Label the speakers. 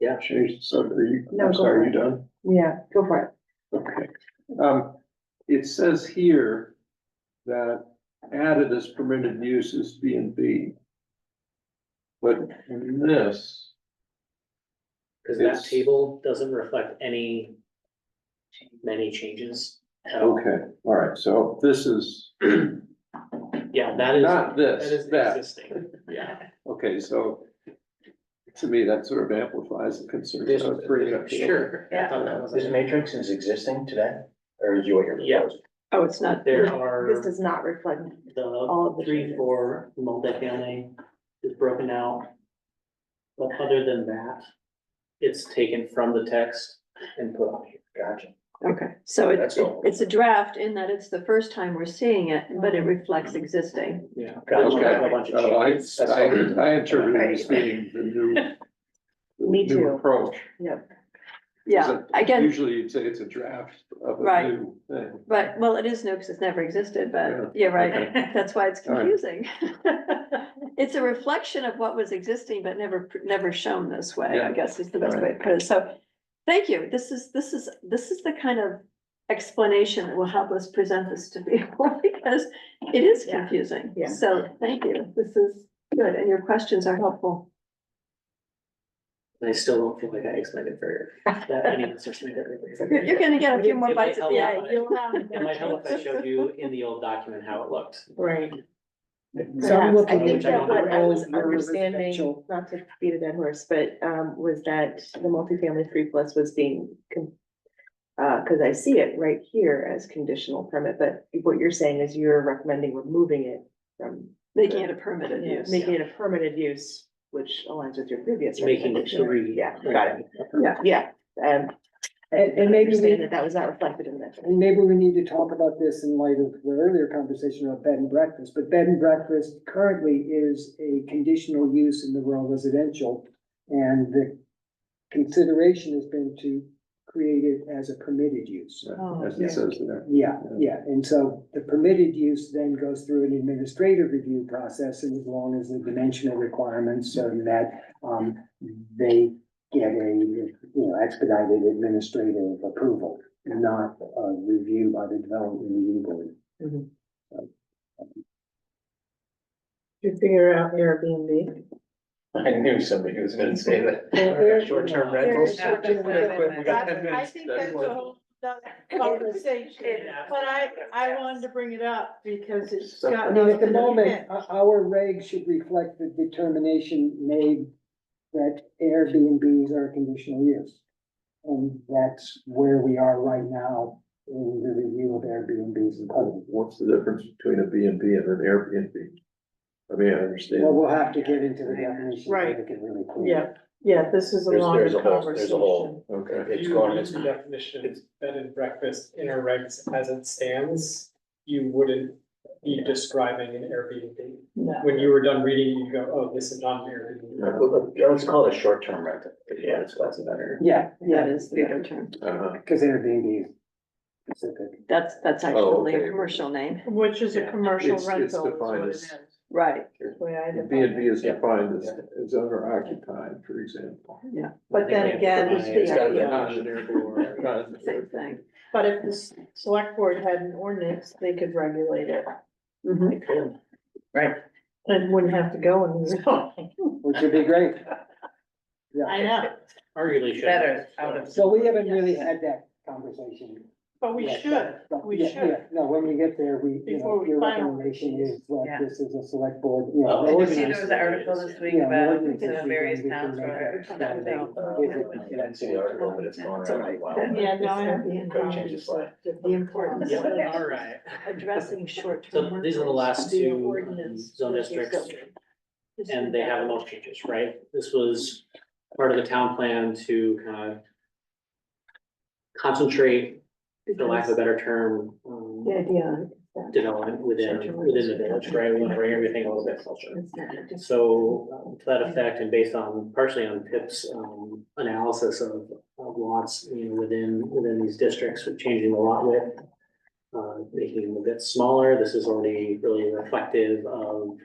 Speaker 1: Yeah, change, so are you,
Speaker 2: No,
Speaker 1: I'm
Speaker 2: go
Speaker 1: sorry, you
Speaker 2: ahead.
Speaker 1: done?
Speaker 2: Yeah, go for it.
Speaker 1: Okay. Um, it says here that added as permitted use is B and B. But in this,
Speaker 3: Cause
Speaker 1: It's-
Speaker 3: that table doesn't reflect any, many changes at all.
Speaker 1: okay, all right, so this is
Speaker 3: Yeah, that is,
Speaker 1: not
Speaker 3: that
Speaker 1: this,
Speaker 3: is
Speaker 1: that,
Speaker 3: existing, yeah.
Speaker 1: okay, so to me, that sort of amplifies the concern.
Speaker 4: This-
Speaker 1: I was bringing up.
Speaker 3: Sure. I
Speaker 2: Yeah.
Speaker 3: thought that was-
Speaker 4: This matrix is existing today, or is you what you're
Speaker 3: Yeah.
Speaker 4: proposing?
Speaker 2: Oh, it's not,
Speaker 3: There
Speaker 2: this
Speaker 3: are
Speaker 2: does not reflect
Speaker 3: the
Speaker 2: all of the
Speaker 3: three,
Speaker 2: changes.
Speaker 3: four multifamily is broken out. But other than that, it's taken from the text and put on here.
Speaker 4: Gotcha.
Speaker 2: Okay, so it,
Speaker 4: That's all.
Speaker 2: it's a draft in that it's the first time we're seeing it, but it reflects existing.
Speaker 3: Yeah.
Speaker 4: Gotcha.
Speaker 3: There's a bunch
Speaker 1: Okay,
Speaker 3: of
Speaker 1: oh, I,
Speaker 3: changes.
Speaker 1: I, I interpreted this meaning, the new. the
Speaker 2: Me
Speaker 1: new
Speaker 2: too.
Speaker 1: Approach.
Speaker 2: Yeah,
Speaker 1: Is it-
Speaker 2: again,
Speaker 1: Usually you'd say it's a draft of a
Speaker 2: Right.
Speaker 1: new thing.
Speaker 2: but, well, it is new because it's never existed,
Speaker 1: Yeah.
Speaker 2: but, yeah, right, that's why it's
Speaker 1: All right.
Speaker 2: confusing. It's a reflection of what was existing, but never, never shown this way,
Speaker 1: Yeah.
Speaker 2: I guess is the best
Speaker 1: All
Speaker 2: way to put it, so. Thank you, this is, this is, this is the kind of explanation that will help us present this to people, because it is
Speaker 5: Yeah.
Speaker 2: confusing.
Speaker 5: Yeah.
Speaker 2: So, thank you, this is good, and your questions are helpful.
Speaker 3: And I still don't feel like I explained it very, that any of this is made
Speaker 2: You're, you're gonna get a few more
Speaker 3: It might
Speaker 2: bites at
Speaker 3: help
Speaker 2: the
Speaker 3: if
Speaker 2: eye.
Speaker 3: I-
Speaker 2: You'll
Speaker 3: It might help if I showed you in the old document how it looked.
Speaker 5: Right. So
Speaker 2: Perhaps.
Speaker 5: I'm looking
Speaker 3: I think that
Speaker 5: at what I was
Speaker 3: would-
Speaker 5: understanding, not to beat a dead horse, but um was that the multifamily three plus was being. con- Uh, cause I see it right here as conditional permit, but what you're saying is you're recommending removing it from.
Speaker 2: Making it a permitted use.
Speaker 5: Making it a permitted use, which aligns with your previous.
Speaker 3: Making it
Speaker 5: recommendation.
Speaker 3: three.
Speaker 5: Yeah, got it,
Speaker 2: Yeah.
Speaker 5: yeah, um.
Speaker 6: And- and maybe we-
Speaker 5: Understand that that was not reflected in this.
Speaker 6: And maybe we need to talk about this in light of the earlier conversation about bed and breakfast, but bed and breakfast currently is a conditional use in the rural residential. And the consideration has been to create it as a permitted use.
Speaker 2: Oh,
Speaker 1: As
Speaker 2: yeah.
Speaker 1: it says there.
Speaker 6: Yeah, yeah, and so the permitted use then goes through an administrative review process, and as long as the dimensional requirements so that, um, they get a, you know, expedited administrative approval, not a review by the development review board.
Speaker 5: You figure out Airbnb.
Speaker 4: I knew somebody was gonna say
Speaker 5: Well,
Speaker 4: that.
Speaker 5: there's-
Speaker 4: Short-term
Speaker 3: there
Speaker 4: rentals.
Speaker 5: is short-term
Speaker 4: Real quick, we got 10
Speaker 7: I
Speaker 4: minutes.
Speaker 7: think
Speaker 4: That's
Speaker 7: that's a
Speaker 4: what-
Speaker 7: whole nother conversation, but I, I wanted to bring it up because it's
Speaker 6: I
Speaker 7: got.
Speaker 6: mean, at the moment, o- our regs should reflect the determination made that Airbnbs are a conditional use. And that's where we are right now in the review of Airbnbs and other.
Speaker 8: What's the difference between a B and B and an Airbnb? I mean, I understand.
Speaker 6: Well, we'll have to get into the definition.
Speaker 7: Right.
Speaker 6: Make it really clear.
Speaker 7: Yeah, yeah, this is a
Speaker 4: There's-
Speaker 7: longer
Speaker 4: there's a whole- there's a whole-
Speaker 7: conversation.
Speaker 8: Okay.
Speaker 4: It's
Speaker 9: you
Speaker 4: going,
Speaker 9: use
Speaker 4: it's,
Speaker 9: the definition of bed and breakfast in our regs as it stands, you wouldn't be describing an Airbnb.
Speaker 7: No.
Speaker 9: When you were done reading, you go, oh, this is not an Airbnb.
Speaker 8: Uh,
Speaker 4: let's call it a short-term rental. Yeah, it's that's better.
Speaker 6: Yeah,
Speaker 2: That is the better term.
Speaker 8: Uh-huh.
Speaker 6: because Airbnb is specific.
Speaker 2: That's, that's
Speaker 8: Oh,
Speaker 2: actually a
Speaker 8: okay.
Speaker 2: commercial name,
Speaker 7: Which is a
Speaker 3: Yeah.
Speaker 7: commercial
Speaker 8: It's- it's
Speaker 7: rental is what
Speaker 8: defined
Speaker 7: it
Speaker 8: as-
Speaker 7: is.
Speaker 2: right,
Speaker 7: the way I
Speaker 8: B
Speaker 7: define
Speaker 8: and B
Speaker 7: it.
Speaker 8: is defined as, as owner occupied, for example.
Speaker 2: yeah,
Speaker 7: But then again,
Speaker 3: It's
Speaker 4: It's gotta be.
Speaker 7: yeah,
Speaker 8: Not an Airbnb. Not an
Speaker 2: same thing.
Speaker 7: but if the s- select board had an ordinance, they could regulate it
Speaker 5: Mm-hmm.
Speaker 2: Mhm.
Speaker 7: and wouldn't have to go in the zone.
Speaker 6: Which would be great. Yeah,
Speaker 7: I know,
Speaker 3: Arguably should.
Speaker 5: Better out of-
Speaker 6: so we haven't really had that conversation.
Speaker 7: but we
Speaker 6: yet,
Speaker 7: should,
Speaker 6: but-
Speaker 7: we
Speaker 6: yeah,
Speaker 7: should.
Speaker 6: yeah, No, when we get there, we, you
Speaker 7: Before
Speaker 6: know,
Speaker 7: we
Speaker 6: your
Speaker 7: finalize
Speaker 6: recommendation is that
Speaker 5: Yeah.
Speaker 6: this is a select board, you
Speaker 3: Oh,
Speaker 6: know.
Speaker 5: Did you
Speaker 6: ordinance.
Speaker 5: see there was an article this week
Speaker 6: Yeah,
Speaker 5: about
Speaker 6: ordinance
Speaker 5: you know,
Speaker 6: is
Speaker 5: various
Speaker 6: we can
Speaker 5: towns
Speaker 6: make
Speaker 5: where
Speaker 6: that
Speaker 5: that
Speaker 6: happen.
Speaker 5: thing?
Speaker 4: Uh, I didn't see the article, but it's going around a while.
Speaker 7: Yeah, no, I have.
Speaker 4: Go change the slide.
Speaker 2: The importance
Speaker 3: Yeah,
Speaker 2: of
Speaker 3: all right.
Speaker 2: addressing short-term.
Speaker 3: So these are the
Speaker 2: rentals
Speaker 3: last
Speaker 2: via
Speaker 3: two um,
Speaker 2: ordinance
Speaker 3: zone
Speaker 2: versus
Speaker 3: districts,
Speaker 2: zoning.
Speaker 3: and they have most changes, right? This was part of the town plan to kind of concentrate, for lack of a better term, um,
Speaker 2: The idea. is that
Speaker 3: development within, within the village, right? We want to bring everything a little bit closer.
Speaker 2: it's not a dis-
Speaker 3: So um, to that effect, and based on, partially on Pip's um, analysis of of lots, you know, within, within these districts, with changing the lot width, uh, making them a bit smaller, this is already really reflective of